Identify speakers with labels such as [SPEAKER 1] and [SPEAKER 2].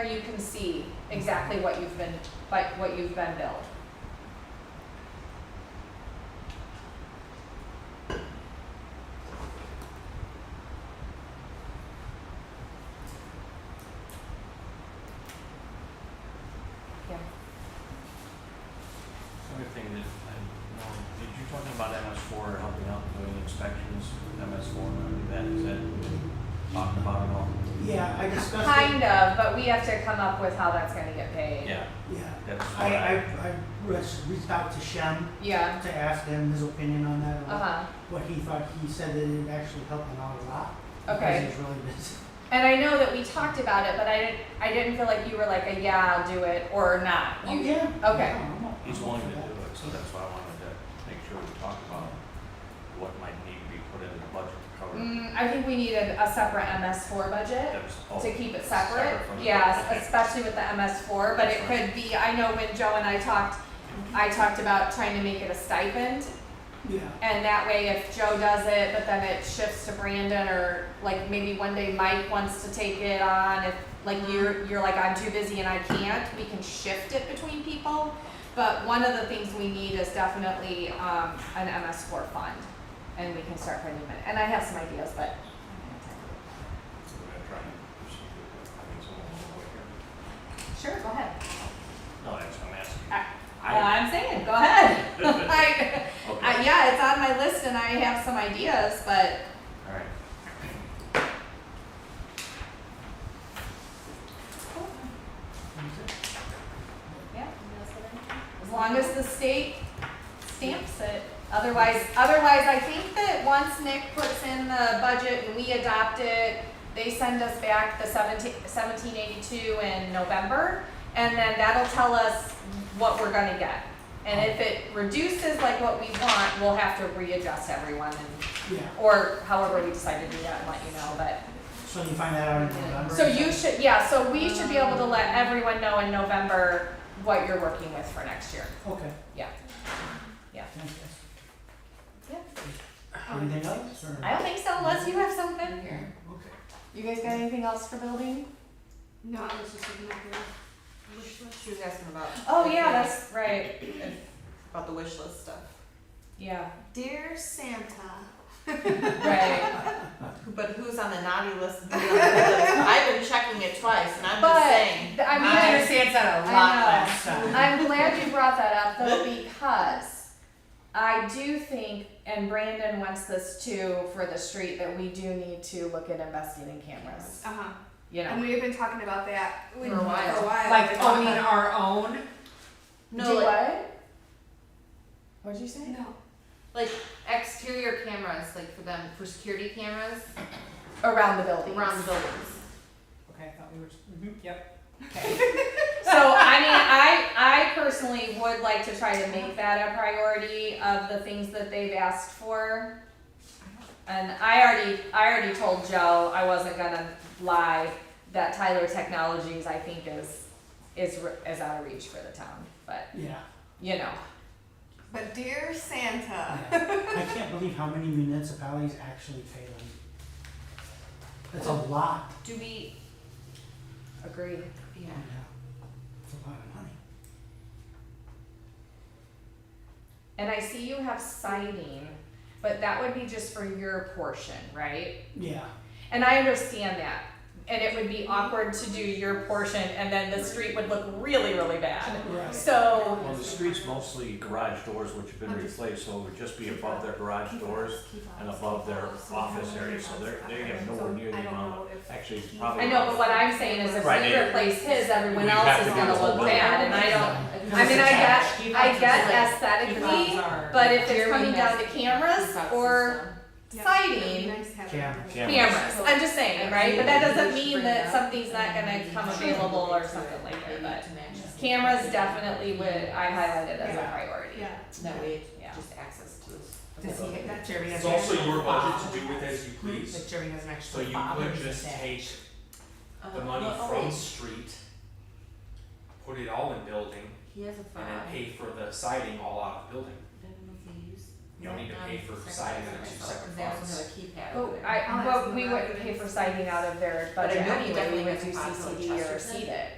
[SPEAKER 1] you can see exactly what you've been, like, what you've been billed. Yeah.
[SPEAKER 2] Other thing that I know, did you talk about MS four helping out doing inspections, MS four, remember that, is that talked about at all?
[SPEAKER 3] Yeah, I discussed it.
[SPEAKER 1] Kind of, but we have to come up with how that's gonna get paid.
[SPEAKER 2] Yeah,
[SPEAKER 3] Yeah.
[SPEAKER 2] that's
[SPEAKER 3] I,
[SPEAKER 2] what
[SPEAKER 3] I,
[SPEAKER 2] I,
[SPEAKER 3] I res- reached out to Shem
[SPEAKER 1] Yeah,
[SPEAKER 3] to ask him his opinion on that, or
[SPEAKER 1] uh-huh.
[SPEAKER 3] what he thought. He said that it actually helped him out a lot.
[SPEAKER 1] Okay.
[SPEAKER 3] Because he's really busy.
[SPEAKER 1] And I know that we talked about it, but I didn't, I didn't feel like you were like a, yeah, I'll do it, or not.
[SPEAKER 3] Oh,
[SPEAKER 1] You-
[SPEAKER 3] yeah.
[SPEAKER 1] okay.
[SPEAKER 3] No, I'm up-
[SPEAKER 2] he's
[SPEAKER 3] I'm up
[SPEAKER 2] willing to
[SPEAKER 3] for that.
[SPEAKER 2] do it, so that's why I wanted to make sure we talked about what might need to be put in the budget to cover.
[SPEAKER 1] Mm, I think we need a, a separate MS four budget
[SPEAKER 2] That's all.
[SPEAKER 1] to keep it separate.
[SPEAKER 2] Oh, from the-
[SPEAKER 1] Yes,
[SPEAKER 2] okay.
[SPEAKER 1] especially with the MS four, but it
[SPEAKER 2] That's
[SPEAKER 1] could be, I know when Joe and I talked, I talked about trying to make it a stipend.
[SPEAKER 3] Yeah.
[SPEAKER 1] And that way, if Joe does it, but then it shifts to Brandon, or like maybe one day Mike wants to take it on, if like you're, you're like, I'm too busy and I can't, we can shift it between people. But one of the things we need is definitely, um, an MS four fund, and we can start putting them in, and I have some ideas, but.
[SPEAKER 2] So we're gonna try and proceed with it. I mean, someone will work here.
[SPEAKER 1] Sure, go ahead.
[SPEAKER 2] No, that's, I'm asking.
[SPEAKER 1] I- Uh,
[SPEAKER 2] I,
[SPEAKER 1] I'm saying, go ahead. I,
[SPEAKER 2] okay,
[SPEAKER 1] I, yeah, it's on my list and I have some ideas, but
[SPEAKER 2] all right.
[SPEAKER 1] Yeah. As long as the state stamps it. Otherwise, otherwise, I think that once Nick puts in the budget and we adopt it, they send us back the seventeen, seventeen eighty-two in November. And then that'll tell us what we're gonna get. And if it reduces like what we want, we'll have to readjust everyone and,
[SPEAKER 3] Yeah.
[SPEAKER 1] or however we decide to do that and let you know, but.
[SPEAKER 3] So you find that out in November?
[SPEAKER 1] So you should, yeah, so we should be able to let everyone know in November what you're working with for next year.
[SPEAKER 3] Okay.
[SPEAKER 1] Yeah.
[SPEAKER 3] Fantastic.
[SPEAKER 1] Yeah.
[SPEAKER 3] Anything else or?
[SPEAKER 1] I don't think so unless you have something.
[SPEAKER 3] Okay.
[SPEAKER 1] You guys got anything else for building?
[SPEAKER 4] No, I was just looking at the wish list. She was asking about.
[SPEAKER 1] Oh, yeah, that's right.
[SPEAKER 4] About the wish list stuff.
[SPEAKER 1] Yeah,
[SPEAKER 4] Dear Santa.
[SPEAKER 1] right.
[SPEAKER 4] But who's on the naughty list? and who's on the good list? I've been checking it twice and I'm
[SPEAKER 1] But,
[SPEAKER 4] just saying.
[SPEAKER 1] th- I mean, I
[SPEAKER 4] understand that
[SPEAKER 1] I know. I'm glad you brought that up though because I do think, and Brandon wants this too for the street, that we do need to look at investing in cameras.
[SPEAKER 5] Uh-huh.
[SPEAKER 1] You
[SPEAKER 5] And
[SPEAKER 1] know,
[SPEAKER 5] we've been talking about that
[SPEAKER 4] For a while.
[SPEAKER 5] For a while.
[SPEAKER 6] like oh, owning
[SPEAKER 5] We've been talking about-
[SPEAKER 6] our own.
[SPEAKER 4] No,
[SPEAKER 1] do
[SPEAKER 4] like,
[SPEAKER 1] what? What'd you say?
[SPEAKER 5] No.
[SPEAKER 4] like exterior cameras, like for them, for security cameras
[SPEAKER 1] Around the building.
[SPEAKER 4] around the buildings.
[SPEAKER 6] Okay, I thought we were. mm yep.
[SPEAKER 1] So I mean, I I personally would like to try to make that a priority of the things that they've asked for. And I already I already told Joe I wasn't gonna lie that Tyler Technologies I think is is re- is out of reach for the town, but
[SPEAKER 3] Yeah.
[SPEAKER 1] you know,
[SPEAKER 5] But dear Santa.
[SPEAKER 3] I can't believe how many municipalities actually pay them. That's
[SPEAKER 1] Oh.
[SPEAKER 3] a lot.
[SPEAKER 4] Do we,
[SPEAKER 1] agree.
[SPEAKER 4] yeah.
[SPEAKER 3] Yeah. uh, It's a lot of money.
[SPEAKER 1] And I see you have siding, but that would be just for your portion, right?
[SPEAKER 3] Yeah.
[SPEAKER 1] And I understand that. And it would be awkward to do your portion and then the street would look really, really bad.
[SPEAKER 3] Right.
[SPEAKER 1] So
[SPEAKER 2] Well, the street's mostly garage doors, which have been replaced, so it would just be above their garage doors and above their office area, so they're, they have nowhere near the amount of, actually, probably.
[SPEAKER 1] I know, but what I'm saying is if
[SPEAKER 2] Right,
[SPEAKER 1] we
[SPEAKER 2] and-
[SPEAKER 1] replace his, everyone
[SPEAKER 2] We'd
[SPEAKER 1] else
[SPEAKER 2] have
[SPEAKER 1] is
[SPEAKER 2] to do
[SPEAKER 1] gonna
[SPEAKER 2] the whole
[SPEAKER 1] look
[SPEAKER 2] budget.
[SPEAKER 1] bad and I don't, I
[SPEAKER 6] It's
[SPEAKER 1] mean, I
[SPEAKER 6] attached.
[SPEAKER 1] get, I
[SPEAKER 6] Keyboards
[SPEAKER 1] get
[SPEAKER 6] is like-
[SPEAKER 1] aesthetically,
[SPEAKER 6] keyboards are-
[SPEAKER 1] but if it's
[SPEAKER 4] Here we
[SPEAKER 1] coming down
[SPEAKER 4] have
[SPEAKER 1] to cameras
[SPEAKER 4] Box
[SPEAKER 1] or
[SPEAKER 4] system.
[SPEAKER 5] Yeah, it'd be
[SPEAKER 1] siding,
[SPEAKER 5] nice to have
[SPEAKER 3] Cam-
[SPEAKER 5] it.
[SPEAKER 2] Cam-
[SPEAKER 1] cameras, I'm just saying, right? But that doesn't mean that something's not gonna
[SPEAKER 4] Maybe
[SPEAKER 1] come
[SPEAKER 4] to-
[SPEAKER 1] available or something like that,
[SPEAKER 4] maybe
[SPEAKER 1] but
[SPEAKER 4] to match us.
[SPEAKER 1] cameras definitely would, I highlighted as a
[SPEAKER 3] Yeah.
[SPEAKER 1] priority.
[SPEAKER 5] Yeah.
[SPEAKER 4] That way,
[SPEAKER 1] Yeah.
[SPEAKER 4] it's just access to this.
[SPEAKER 6] Does he, that Jeremy has
[SPEAKER 7] It's
[SPEAKER 6] an
[SPEAKER 7] also
[SPEAKER 6] extra
[SPEAKER 7] your budget
[SPEAKER 6] fob.
[SPEAKER 7] to do with as you
[SPEAKER 6] Like
[SPEAKER 7] please,
[SPEAKER 6] Jeremy has an
[SPEAKER 7] so
[SPEAKER 6] extra
[SPEAKER 7] you
[SPEAKER 6] fob
[SPEAKER 7] could
[SPEAKER 6] and
[SPEAKER 7] just
[SPEAKER 6] that.
[SPEAKER 7] take the
[SPEAKER 4] Uh,
[SPEAKER 7] money
[SPEAKER 4] oh,
[SPEAKER 7] from
[SPEAKER 4] wait,
[SPEAKER 7] street, put it all in building,
[SPEAKER 4] He has a
[SPEAKER 7] and then
[SPEAKER 4] five.
[SPEAKER 7] pay for the siding all out of building.
[SPEAKER 4] I don't know if they use
[SPEAKER 7] You don't need to pay for siding in two separate
[SPEAKER 4] They also have
[SPEAKER 7] funds.
[SPEAKER 4] a keypad over
[SPEAKER 1] But
[SPEAKER 4] there.
[SPEAKER 1] I,
[SPEAKER 5] Oh,
[SPEAKER 1] but
[SPEAKER 5] that's
[SPEAKER 1] we
[SPEAKER 5] not
[SPEAKER 1] wouldn't
[SPEAKER 5] good.
[SPEAKER 1] pay for siding out of their
[SPEAKER 4] But I
[SPEAKER 1] budget
[SPEAKER 4] know we
[SPEAKER 1] anyway, we
[SPEAKER 4] definitely
[SPEAKER 1] would
[SPEAKER 4] have
[SPEAKER 1] do
[SPEAKER 4] to file for
[SPEAKER 1] CCD or
[SPEAKER 4] Chesterton.
[SPEAKER 1] seed it.